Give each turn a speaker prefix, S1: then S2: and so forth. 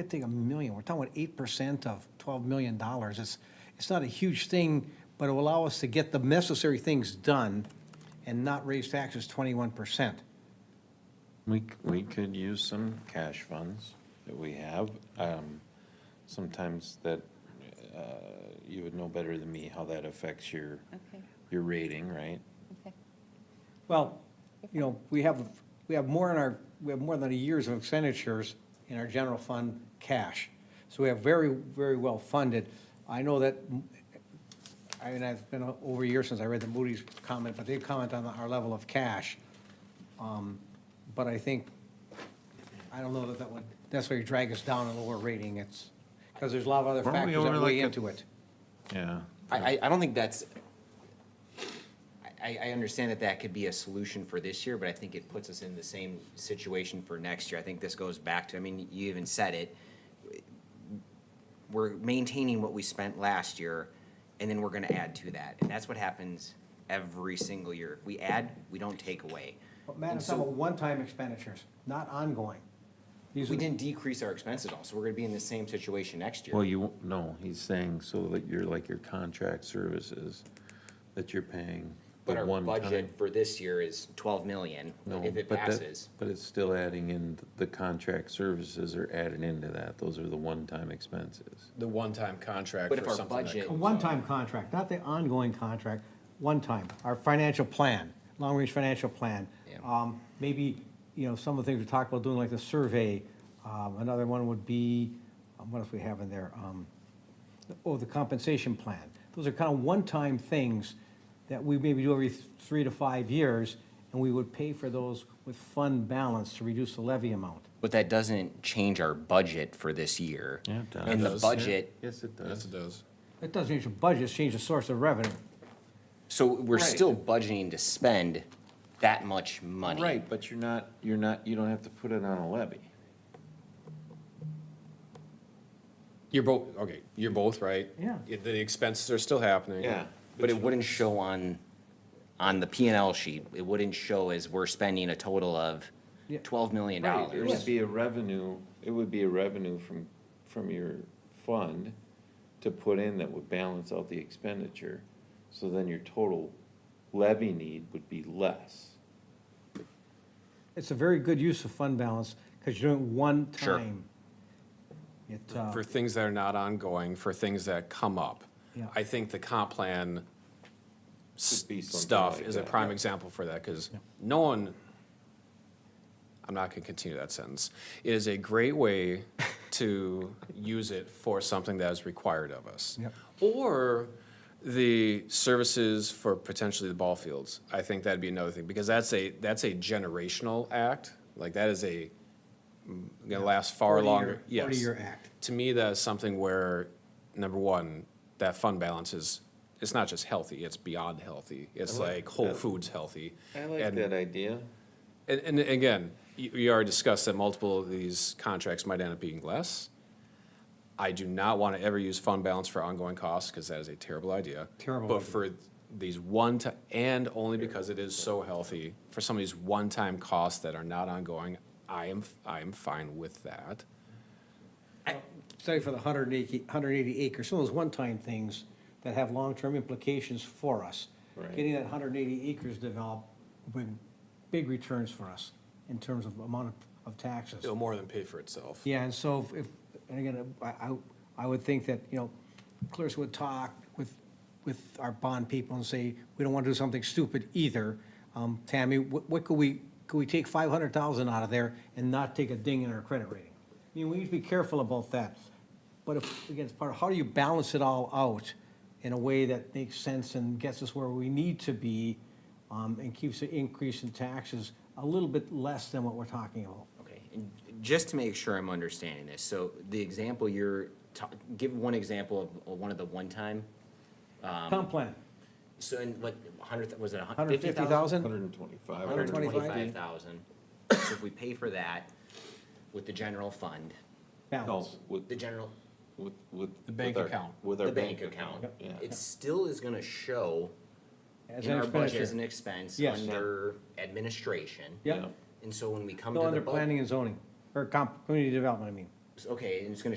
S1: I think a million, we're talking about eight percent of twelve million dollars. It's, it's not a huge thing, but it will allow us to get the necessary things done and not raise taxes twenty-one percent.
S2: We, c- we could use some cash funds that we have. Um, Sometimes that, uh, you would know better than me how that affects your,
S3: Okay,
S2: your rating, right?
S3: okay.
S1: Well, you know, we have, we have more in our, we have more than a year's of expenditures in our general fund cash. So we have very, very well funded. I know that, I mean, it's been over a year since I read the Moody's comment, but they comment on our level of cash. Um, But I think, I don't know that that would necessarily drag us down a lower rating. It's, because there's a lot of other
S2: Weren't we
S1: factors
S2: over
S1: that
S2: like
S1: weigh
S2: a-
S1: into it.
S2: Yeah.
S4: I, I, I don't think that's, I- I, I understand that that could be a solution for this year, but I think it puts us in the same situation for next year. I think this goes back to, I mean, you even said it. We're maintaining what we spent last year, and then we're gonna add to that. And that's what happens every single year. If we add, we don't take away.
S1: But Matt, it's about one-time expenditures, not ongoing. These are
S4: We
S1: the-
S4: didn't decrease our expenses at all, so we're gonna be in the same situation next year.
S2: Well, you, won't- no, he's saying so that you're like your contract services that you're paying.
S4: But
S2: the
S4: our
S2: one
S4: budget
S2: time-
S4: for this year is twelve million,
S2: No,
S4: if it
S2: but that-
S4: passes.
S2: But it's still adding in, the contract services are added into that. Those are the one-time expenses.
S5: the one-time contract
S4: But if
S5: for
S4: our
S5: something that
S4: budget-
S1: A
S5: comes up.
S1: one-time contract, not the ongoing contract, one time, our financial plan, long-range financial plan.
S4: Yeah.
S1: Um, maybe, you know, some of the things we talked about doing, like the survey, um, another one would be, um, what else we have in there? Um, oh, the compensation plan. Those are kind of one-time things that we maybe do every th- three to five years, and we would pay for those with fund balance to reduce the levy amount.
S4: But that doesn't change our budget for this year.
S2: Yeah, it does.
S4: And the
S5: does.
S4: budget,
S2: Yes, it
S5: Yes,
S2: does.
S5: it does.
S1: It doesn't change the budget, it's changed the source of revenue.
S4: so we're still budgeting to spend that much money.
S2: Right, but you're not, you're not, you don't have to put it on a levy.
S5: You're both, okay, you're both right.
S1: Yeah.
S5: It- The expenses are still happening.
S2: Yeah.
S4: But it wouldn't show on, on the P and L sheet. It wouldn't show as we're spending a total of
S1: Yeah.
S4: twelve million
S2: Right, it
S4: dollars.
S2: would be a revenue, it would be a revenue from, from your fund to put in that would balance out the expenditure. So then your total levy need would be less.
S1: It's a very good use of fund balance, because you're doing it one
S4: Sure.
S1: time. It, uh,
S5: For things that are not ongoing, for things that come up.
S1: Yeah.
S5: I think the comp plan s-
S2: Could be something
S5: stuff
S2: like
S5: is a
S2: that,
S5: prime
S2: yeah.
S5: example for that, because no one, I'm not gonna continue that sentence. It is a great way to use it for something that is required of us.
S1: Yep.
S5: Or the services for potentially the ball fields. I think that'd be another thing, because that's a, that's a generational act. Like, that is a, gonna last far
S1: 40 year-
S5: longer. Yes.
S1: 40 year act.
S5: To me, that's something where, number one, that fund balance is, it's not just healthy, it's beyond healthy. It's like whole
S2: that.
S5: foods healthy.
S2: I like
S5: And-
S2: that idea.
S5: And, and again, you, you already discussed that multiple of these contracts might end up being less. I do not want to ever use fund balance for ongoing costs, because that is a terrible idea.
S1: Terrible
S5: But
S1: idea.
S5: for these one ti- and only because it is so healthy, for some of these one-time costs that are not ongoing, I am, I am fine with that.
S1: Study for the 180 180 acres, some of those one-time things that have long-term implications for us.
S2: Right.
S1: Getting that 180 acres developed will bring big returns for us in terms of amount of- of taxes.
S5: It'll more than pay for itself.
S1: Yeah, and so if- if, and again, I, I, I would think that, you know, Clarissa would talk with, with our bond people and say, we don't want to do something stupid either. Um, Tammy, what, what could we, could we take five hundred thousand out of there and not take a ding in our credit rating? I mean, we need to be careful about that. But if, again, it's part of, how do you balance it all out in a way that makes sense and gets us where we need to be? Um, and keeps the increase in taxes a little bit less than what we're talking about.
S4: Okay, and just to make sure I'm understanding this, so the example you're, ta- give one example of uh, one of the one-time,
S1: Comp plan,
S4: so in like a hundred, was it a hun-
S1: hundred
S4: fifty
S1: fifty thousand?
S4: thousand?
S2: Hundred and twenty-five.
S1: 125?
S4: 125,000. So if we pay for that with the general fund,
S2: No,
S1: balance.
S2: with,
S4: the general,
S2: with, with.
S5: The bank
S2: with our-
S5: account.
S2: With our
S4: the
S2: bank
S4: bank
S2: account,
S4: account,
S2: yeah.
S4: it still is gonna show
S1: As
S4: in
S1: an
S4: our budget as an
S1: expenditure.
S4: expense
S1: Yes.
S4: under administration.
S1: Yep.
S4: And so when we come
S1: No,
S4: to the
S1: under
S4: budget,
S1: planning and zoning, or comp, community development, I mean.
S4: okay, and it's gonna